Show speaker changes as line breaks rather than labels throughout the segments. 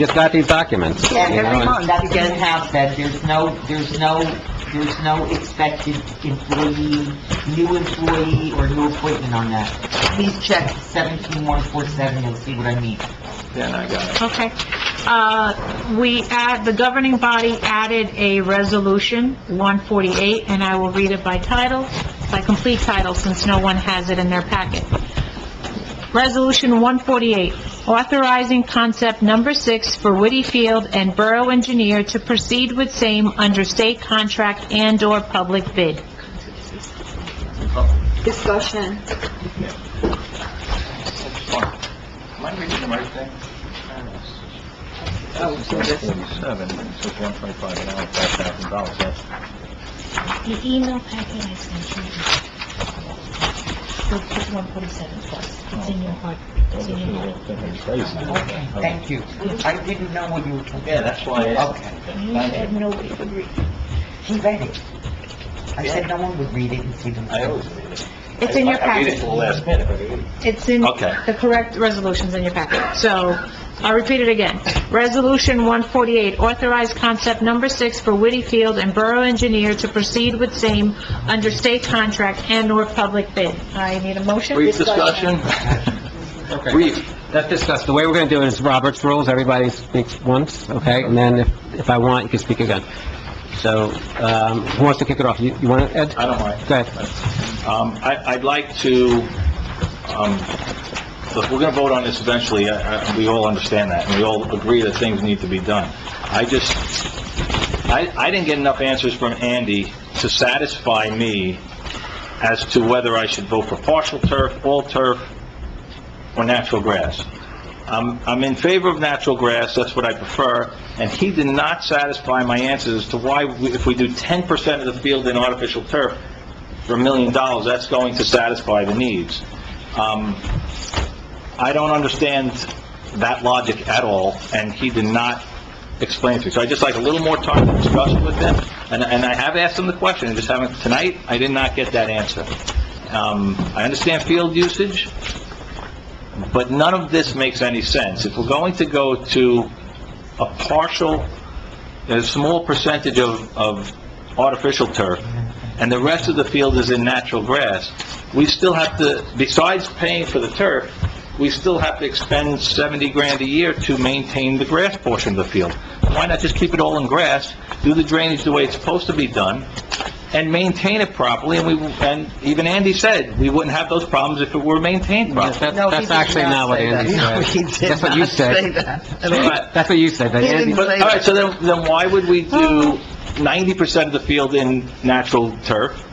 just got these documents.
Yeah,
you know,
every
and-
month, that does have that, there's no, there's no, there's no expected employee, new employee or new appointment on that. Please check seventeen one four seven, you'll see what I mean.
Then I got it.
Okay. Uh, We add, the governing body added a resolution, 148, and I will read it by title, by complete title, since no one has it in their packet. Resolution 148, authorizing concept number six for Whitty Field and Borough Engineer to proceed with same under state contract and/or public bid.
Discussion.
Am I reading the right thing?
Oh, so this-
Forty-seven, it says one twenty-five an hour, five thousand dollars, that's...
The email packet I sent you is 147 plus. It's in your heart. It's in your heart.
Okay,
Okay.
thank you. I didn't know what you were talking
Yeah,
about.
that's why I asked.
Okay,
You
Thank
said
you.
nobody would read.
he read it. I said no one would read it and see
I
themselves.
always read it.
It's in your
I- I read it
packet.
till the last minute, but I read it.
It's in,
Okay.
the correct resolution's in your packet. So, I'll repeat it again. Resolution 148, authorize concept number six for Whitty Field and Borough Engineer to proceed with same under state contract and/or public bid. I need a motion?
Brief discussion? Brief.
Let's discuss, the way we're going to do it is Robert's rules, everybody speaks once, okay? And then if, if I want, you can speak again. So, um, who wants to kick it off? You, you want to, Ed?
I don't mind.
Go ahead.
Um, I, I'd like to, um, look, we're gonna vote on this eventually, I, I, we all understand that, and we all agree that things need to be done. I just, I, I didn't get enough answers from Andy to satisfy me as to whether I should vote for partial turf, all turf, or natural grass. I'm, I'm in favor of natural grass, that's what I prefer, and he did not satisfy my answers as to why, we- if we do 10% of the field in artificial turf for a million dollars, that's going to satisfy the needs. Um, I don't understand that logic at all, and he did not explain it to me. So I'd just like a little more time to discuss it with him, and, and I have asked him the question, I just haven't, tonight, I did not get that answer. Um, I understand field usage, but none of this makes any sense. If we're going to go to a partial, a small percentage of, of artificial turf, and the rest of the field is in natural grass, we still have to, besides paying for the turf, we still have to expend 70 grand a year to maintain the grass portion of the field. Why not just keep it all in grass, do the drainage the way it's supposed to be done, and maintain it properly, and we, and even Andy said, we wouldn't have those problems if it were maintained
Yes,
properly.
That's, that's actually not what Andy said. That's what you said.
But
That's what you said, that Andy,
But, all right, so then, then why would we do 90% of the field in natural turf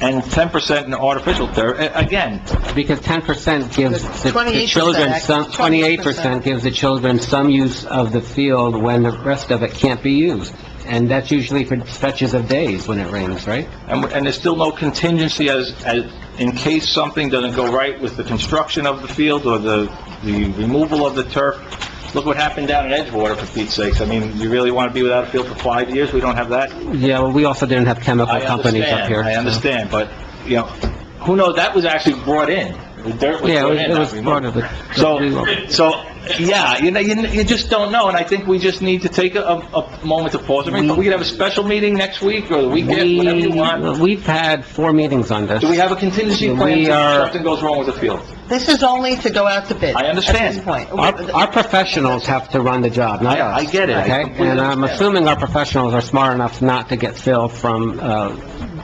and 10% in artificial turf? A- Again,
because 10% gives the- the
28%,
children some, 28%
28%.
gives the children some use of the field when the rest of it can't be used. And that's usually for stretches of days when it rains, right?
and, and there's still no contingency as, as, in case something doesn't go right with the construction of the field or the, the removal of the turf. Look what happened down in Edgewater, for Pete's sakes. I mean, you really want to be without a field for five years? We don't have that?
Yeah, well, we also didn't have chemical
I
companies up
understand,
here.
I
so-
understand, but, you know, who knows, that was actually brought in. The dirt was
Yeah,
brought in,
it
not
was
removed.
part of it.
So, so, yeah, you know, you, you just don't know, and I think we just need to take a, a a moment to pause. I mean, we could have a special meeting next week or the weekend, whatever you want.
We, we've had four meetings on this.
Do we have a contingency plan
We
if
are-
something goes wrong with the field?
This is only to go out to bid.
I
At this
understand.
point.
Our, our professionals have to run the job, not
I- I
us.
get it. I
Okay?
completely
And I'm
understand.
assuming our professionals are smart enough not to get filled from, uh,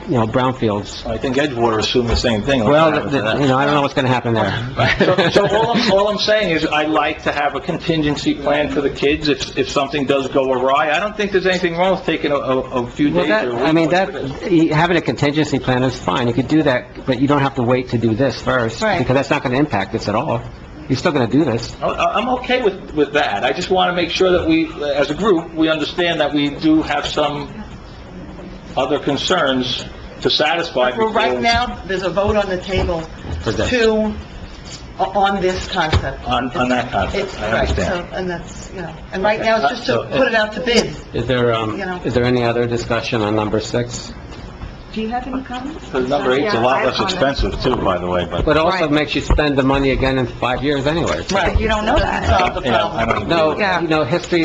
you know, brownfields.
I think Edgewater assumed the same thing.
Well, th- th- you know, I don't know what's gonna happen
So,
there.
so all I'm, all I'm saying is I like to have a contingency plan for the kids if, if something does go awry. I don't think there's anything wrong with taking a, a a few
Well,
days
that,
or a week.
I mean, that, you- having a contingency plan is fine, you could do that, but you don't have to wait to do this first.
Right.
Because that's not gonna impact this at all. You're still gonna do this.
I- I- I'm okay with, with that. I just want to make sure that we, as a group, we understand that we do have some other concerns to satisfy.
Well, right
before-
now, there's a vote on the table
For this.
to, uh, on this concept.
On, on that concept,
It's,
I
right,
understand. Uh,
so, and that's, you know, and right now, it's just to put it out to bid.
Is there, um,
You know.
is there any other discussion on number six?
Do you have any comments?
Because number eight's a lot less expensive too, by the way, but, uh,
But it also makes you spend the money again in five years anyway.
Right. You don't know that. Solve the
you know,
problem.
I don't agree with
No,
that.
you know, history